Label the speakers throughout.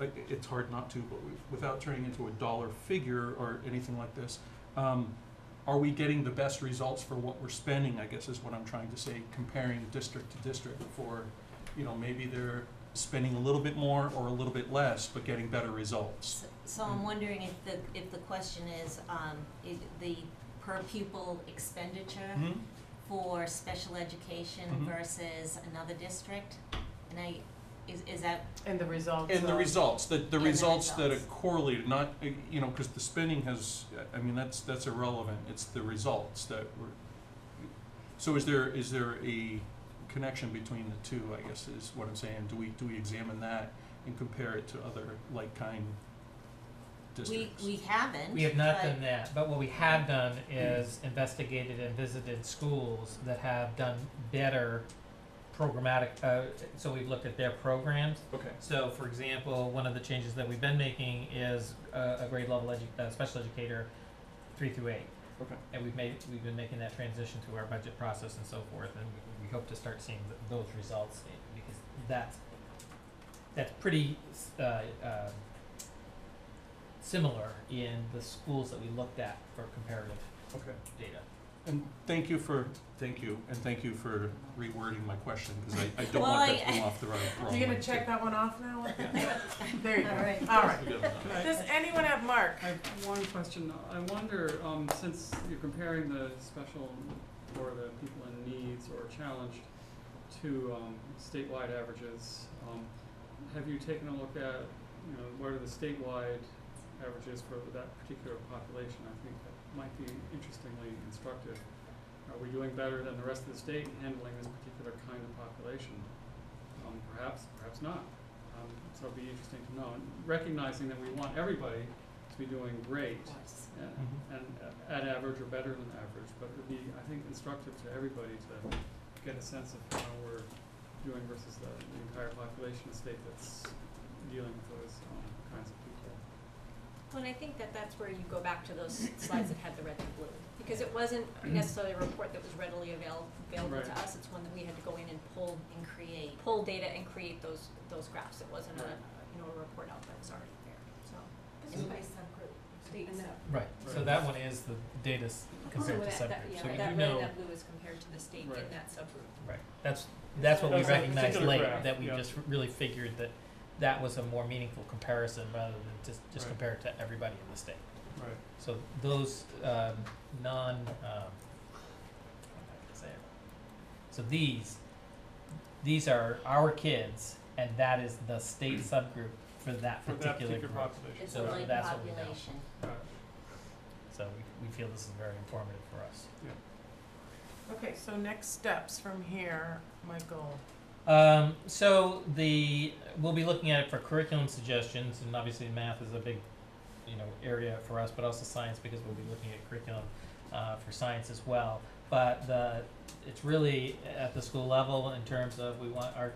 Speaker 1: I, it's hard not to, but we've, without turning into a dollar figure or anything like this, um, are we getting the best results for what we're spending, I guess is what I'm trying to say, comparing district to district for, you know, maybe they're spending a little bit more or a little bit less, but getting better results.
Speaker 2: S- So
Speaker 3: Hmm.
Speaker 2: I'm wondering if the, if the question is, um, is the per pupil expenditure
Speaker 3: Hmm.
Speaker 1: Mhm.
Speaker 2: for special education
Speaker 3: Mm-hmm.
Speaker 1: Mhm.
Speaker 2: versus another district? And I, is, is that,
Speaker 4: And the results
Speaker 1: And the
Speaker 4: of-
Speaker 1: results, the, the
Speaker 2: the
Speaker 1: results that are
Speaker 2: results.
Speaker 1: correlated, not, uh, you know, because the spending has, I mean, that's, that's irrelevant, it's the results that were. So is there, is there a connection between the two, I guess, is what I'm saying, do we, do we examine that and compare it to other like-kind
Speaker 2: we,
Speaker 1: districts?
Speaker 2: we haven't,
Speaker 3: We have not
Speaker 2: but-
Speaker 3: done that, but what we have done is investigated and visited schools that have done better programmatic, uh, so we've looked at their programs.
Speaker 1: Okay,
Speaker 3: So for example, one of the changes that we've been making is uh, a grade level edu- uh, special educator, three through eight.
Speaker 1: okay,
Speaker 3: And we've made, we've been making that transition through our budget process and so forth, and we, we hope to start seeing th- those results, eh, because that's, that's pretty, s- uh, um, similar in the schools that we looked at for comparative
Speaker 1: okay.
Speaker 3: data.
Speaker 1: And thank you for, thank you, and thank you for rewording my question, because I, I don't
Speaker 2: Well,
Speaker 1: want that
Speaker 2: I-
Speaker 1: to come off the wrong, wrong
Speaker 4: You're
Speaker 1: way.
Speaker 4: gonna check that one off now? There you go.
Speaker 2: All right.
Speaker 4: All right.
Speaker 1: We got it.
Speaker 4: Does anyone have Mark?
Speaker 5: I have one question. I wonder, um, since you're comparing the special or the people in needs or challenged to, um, statewide averages, um, have you taken a look at, you know, what are the statewide averages for that particular population? I think that might be interestingly instructive. Are we doing better than the rest of the state in handling this particular kind of population? Um, perhaps, perhaps not. Um, so it'd be interesting to know, and recognizing that we want everybody to be doing great
Speaker 2: Of course.
Speaker 5: and,
Speaker 1: Mm-hmm.
Speaker 5: and at average or better than average, but it'd be, I think, instructive to everybody to get a sense of how we're doing versus the, the entire population of state that's dealing with those, um, kinds of people.
Speaker 6: Well, and I think that that's where you go back to those slides that had the red and blue, because it wasn't necessarily a report that was readily avail- available to
Speaker 5: Right.
Speaker 6: us, it's one that we had to go in and pull,
Speaker 2: And create,
Speaker 6: pull data and create those, those graphs, it wasn't a,
Speaker 5: Right.
Speaker 6: you know, a report out that was already there, so.
Speaker 1: This is
Speaker 6: by subgroup, state
Speaker 3: Right, so
Speaker 5: Right.
Speaker 3: that one is the data s-
Speaker 6: Oh,
Speaker 3: compared to subgroups, so we do know,
Speaker 6: that blue is compared to the state
Speaker 5: Right.
Speaker 6: that subgroup.
Speaker 3: right, that's, that's what we
Speaker 5: That's a
Speaker 3: recognized
Speaker 5: particular
Speaker 3: later,
Speaker 5: graph,
Speaker 3: that we
Speaker 5: yeah.
Speaker 3: just really figured that that was a more meaningful comparison rather than just, just
Speaker 5: Right.
Speaker 3: compare it to everybody in the state.
Speaker 5: Right.
Speaker 3: So those um, non, um, how am I gonna say it? So these, these are our kids, and that is the state subgroup for that
Speaker 5: For that
Speaker 3: particular
Speaker 5: particular
Speaker 3: group.
Speaker 5: population.
Speaker 2: it's
Speaker 3: So
Speaker 2: a light
Speaker 3: that's what we know.
Speaker 2: population.
Speaker 5: Right.
Speaker 3: So we, we feel this is very informative for us.
Speaker 4: Okay, so next steps from here, Michael.
Speaker 3: Um, so the we'll be looking at it for curriculum suggestions, and obviously math is a big, you know, area for us, but also science because we'll be looking at curriculum uh, for science as well. But the it's really at the school level in terms of we want our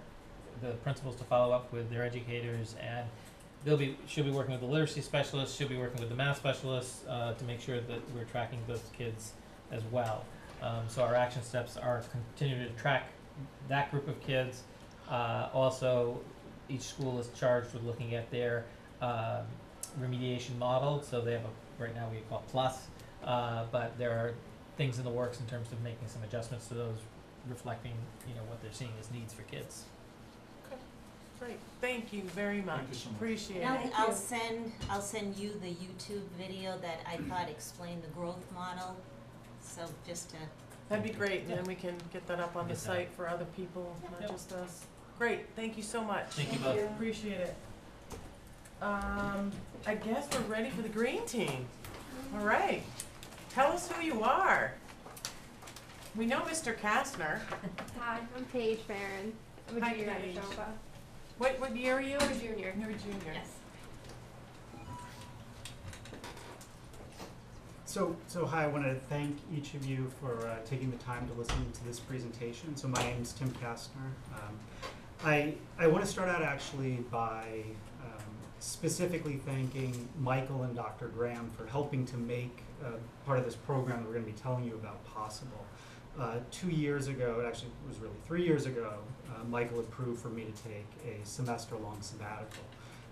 Speaker 3: the principals to follow up with their educators and they'll be she'll be working with the literacy specialists, she'll be working with the math specialists uh, to make sure that we're tracking those kids as well. Um, so our action steps are continue to track that group of kids. Uh, also, each school is charged with looking at their um, remediation model. So they have a right now we call plus, uh, but there are things in the works in terms of making some adjustments to those, reflecting you know what they're seeing as needs for kids.
Speaker 4: Great, thank you very much.
Speaker 1: you so much.
Speaker 4: Appreciate
Speaker 2: And
Speaker 4: it.
Speaker 2: I'll, I'll send, I'll send you the YouTube video that I thought explained the growth model, so just to,
Speaker 4: That'd be great, and then we can get that up on the
Speaker 3: Get that.
Speaker 4: site for other people,
Speaker 3: Yeah.
Speaker 4: not just us. Great, thank you so much.
Speaker 3: Thank you both.
Speaker 4: Appreciate it. Um, I guess we're ready for the green team. All right, tell us who you are. We know Mr. Kastner.
Speaker 7: Hi, I'm Paige Barron. I'm a
Speaker 4: Hi,
Speaker 7: junior
Speaker 4: Paige.
Speaker 7: at Nova.
Speaker 4: What, what year are you?
Speaker 7: I'm a junior.
Speaker 4: You're a junior.
Speaker 7: Yes.
Speaker 8: So, so hi, I want to thank each of you for uh, taking the time to listen to this presentation. So my name is Tim Kastner. Um, I, I want to start out actually by um, specifically thanking Michael and Dr. Graham for helping to make uh, part of this program that we're going to be telling you about possible. Uh, two years ago, it actually was really three years ago, uh, Michael approved for me to take a semester long sabbatical.